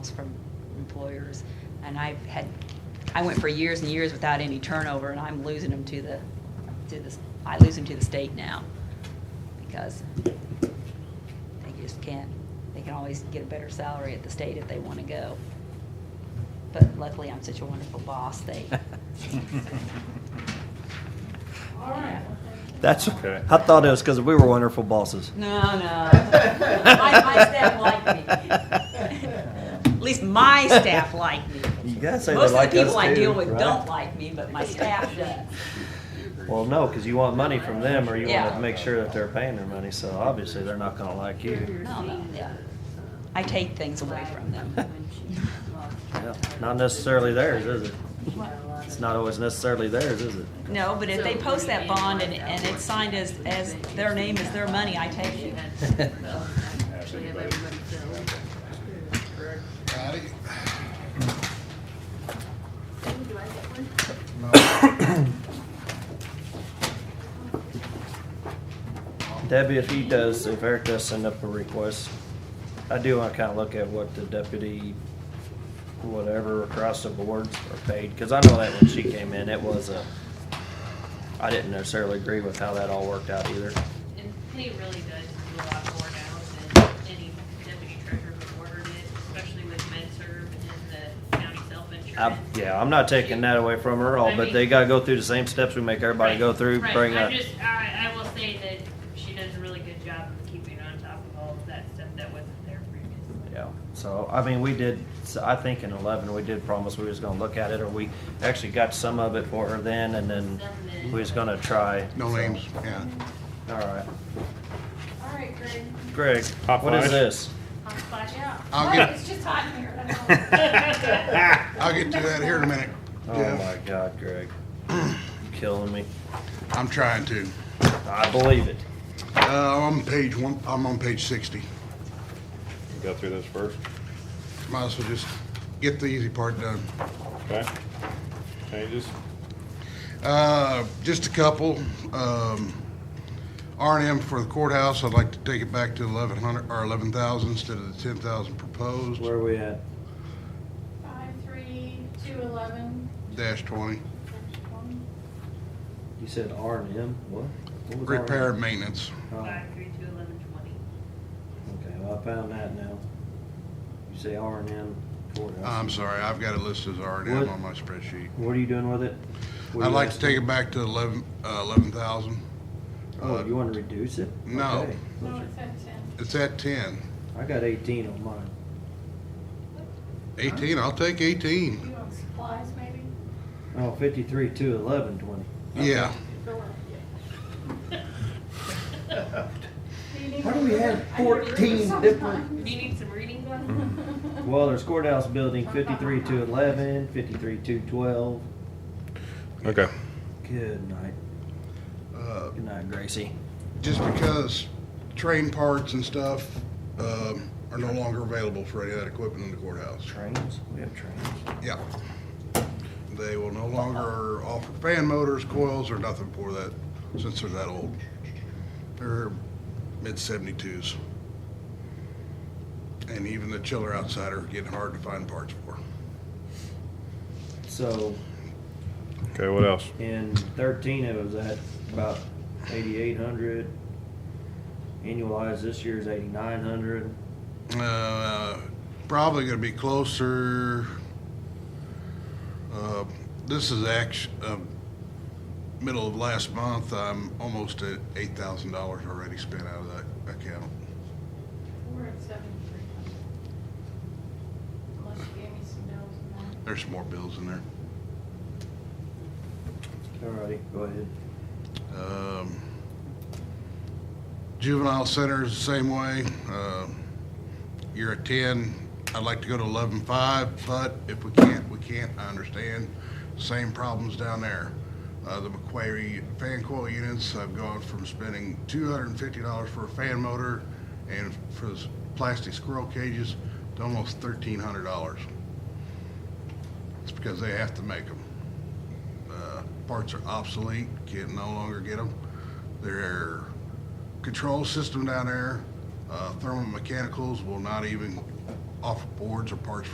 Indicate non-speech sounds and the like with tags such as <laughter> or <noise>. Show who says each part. Speaker 1: from employers, and I've had, I went for years and years without any turnover, and I'm losing them to the, to the, I lose them to the state now, because they just can't, they can always get a better salary at the state if they want to go. But luckily, I'm such a wonderful boss, they,
Speaker 2: That's,
Speaker 3: Okay.
Speaker 2: I thought it was because we were wonderful bosses.
Speaker 1: no, no. My, my staff like me. At least my staff like me.
Speaker 2: You gotta say they
Speaker 1: Most of
Speaker 2: like
Speaker 1: the people
Speaker 2: us
Speaker 1: I
Speaker 2: too,
Speaker 1: deal with
Speaker 2: right?
Speaker 1: don't like me, but my staff does.
Speaker 2: Well, no, because you want money from them or you want
Speaker 1: Yeah.
Speaker 2: to make sure that they're paying their money, so obviously they're not gonna like you.
Speaker 1: No, no, yeah. I take things away from them.
Speaker 4: <laughs>
Speaker 2: Yeah, Not necessarily theirs, is it? It's
Speaker 4: <laughs>
Speaker 2: not always necessarily theirs, is it?
Speaker 1: No, but if they post that bond and, and it's signed as, as their name is their money, I take it.
Speaker 4: <laughs>
Speaker 5: Patty?
Speaker 2: Debbie, if he does, if Eric does send up a request, I do want to kind of look at what the deputy, whatever, across the boards are paid, because I know that when she came in, it was a, I didn't necessarily agree with how that all worked out either.
Speaker 4: And Penny really does do a lot more now than any deputy treasurer before her did, especially with MedServ and the county
Speaker 2: I,
Speaker 4: self-insurance.
Speaker 2: yeah, I'm not taking that away from her at all, but they gotta go through the same steps we make everybody go
Speaker 4: Right,
Speaker 2: through,
Speaker 4: right.
Speaker 2: bring
Speaker 4: I
Speaker 2: up.
Speaker 4: just, I, I will say that she does a really good job of keeping on top of all of that stuff that wasn't there previously.
Speaker 2: Yeah, so, I mean, we did, so I think in eleven, we did promise we was gonna look at it, or we actually got some of it for her then, and then we was gonna try.
Speaker 5: No names, yeah.
Speaker 2: All right.
Speaker 6: All right, Greg.
Speaker 2: Greg,
Speaker 3: Hot
Speaker 2: what is
Speaker 3: flash.
Speaker 2: this?
Speaker 6: I'll flash out.
Speaker 5: I'll
Speaker 6: Look,
Speaker 5: get-
Speaker 6: It's just hot in here.
Speaker 2: <laughs>
Speaker 6: that's all.
Speaker 5: I'll get to that here in a minute.
Speaker 2: Oh my
Speaker 5: Jeff.
Speaker 2: God, Greg, You're killing me.
Speaker 5: I'm trying to.
Speaker 2: I believe it.
Speaker 5: Uh, I'm on page one, I'm on page sixty.
Speaker 3: Go through this first,
Speaker 5: Might as well just get the easy part done.
Speaker 3: okay? Changes?
Speaker 5: Uh, just a couple. Um, R and M for the courthouse, I'd like to take it back to eleven hundred, or eleven thousand instead of the ten thousand proposed,
Speaker 2: Where are we at?
Speaker 6: Five, three, two, eleven,
Speaker 5: dash twenty.
Speaker 6: one.
Speaker 2: You said R and M, what? What was
Speaker 5: Repair
Speaker 2: R&M?
Speaker 5: and maintenance.
Speaker 2: Oh,
Speaker 4: Five, three, two, eleven, twenty.
Speaker 2: Okay, well, I found that now. You say R and M courthouse.
Speaker 5: I'm sorry, I've got it listed as R and M
Speaker 2: What?
Speaker 5: on my spreadsheet.
Speaker 2: What are you doing with it? What are
Speaker 5: I'd
Speaker 2: you
Speaker 5: like to
Speaker 2: asking?
Speaker 5: take it back to eleven, uh, eleven thousand.
Speaker 2: Oh, you wanna reduce it?
Speaker 5: no.
Speaker 2: Okay.
Speaker 6: No, it's at ten.
Speaker 5: It's at ten.
Speaker 2: I got eighteen on mine.
Speaker 5: Eighteen, I'll take eighteen.
Speaker 6: You want supplies, maybe?
Speaker 2: Oh, fifty-three, two, eleven, twenty.
Speaker 5: Yeah,
Speaker 6: Go on, yeah. Do you need
Speaker 2: Why do we
Speaker 6: to-
Speaker 2: have
Speaker 6: I need to read
Speaker 2: 14
Speaker 6: sometime.
Speaker 2: different-
Speaker 4: Do you need some reading glasses?
Speaker 2: Mm-hmm. Well, there's courthouse building, fifty-three, two, eleven, fifty-three, two, twelve.
Speaker 3: Okay.
Speaker 2: Good night.
Speaker 5: uh,
Speaker 2: Good night, Gracie.
Speaker 5: just because train parts and stuff, um, are no longer available for any of that equipment in the courthouse.
Speaker 2: Trains? We have trains.
Speaker 5: Yeah. They will no longer offer fan motors, coils, or nothing for that, since they're that old. They're mid seventy-twos. And even the chiller outside are getting hard to find parts for.
Speaker 2: So
Speaker 3: Okay, what else?
Speaker 2: in thirteen, it was at about eighty-eight hundred. Annualized this year is eighty-nine hundred.
Speaker 5: Uh, probably gonna be closer. Uh, this is act, uh, middle of last month, I'm almost at eight thousand dollars already spent out of that account.
Speaker 6: We're at seventy-three hundred. Unless you gave me some bills and that.
Speaker 5: There's some more bills in there.
Speaker 2: Alrighty, go ahead.
Speaker 5: Um, Juvenile center is the same way. Uh, You're at ten, I'd like to go to eleven-five, but if we can't, we can't, I understand. Same problems down there. Uh, The McQuarrie fan coil units, I've gone from spending two hundred and fifty dollars for a fan motor and for those plastic squirrel cages to almost thirteen hundred dollars. It's because they have to make them uh, parts are obsolete, can no longer get them. Their control system down there, uh, thermal mechanicals will not even offer boards or parts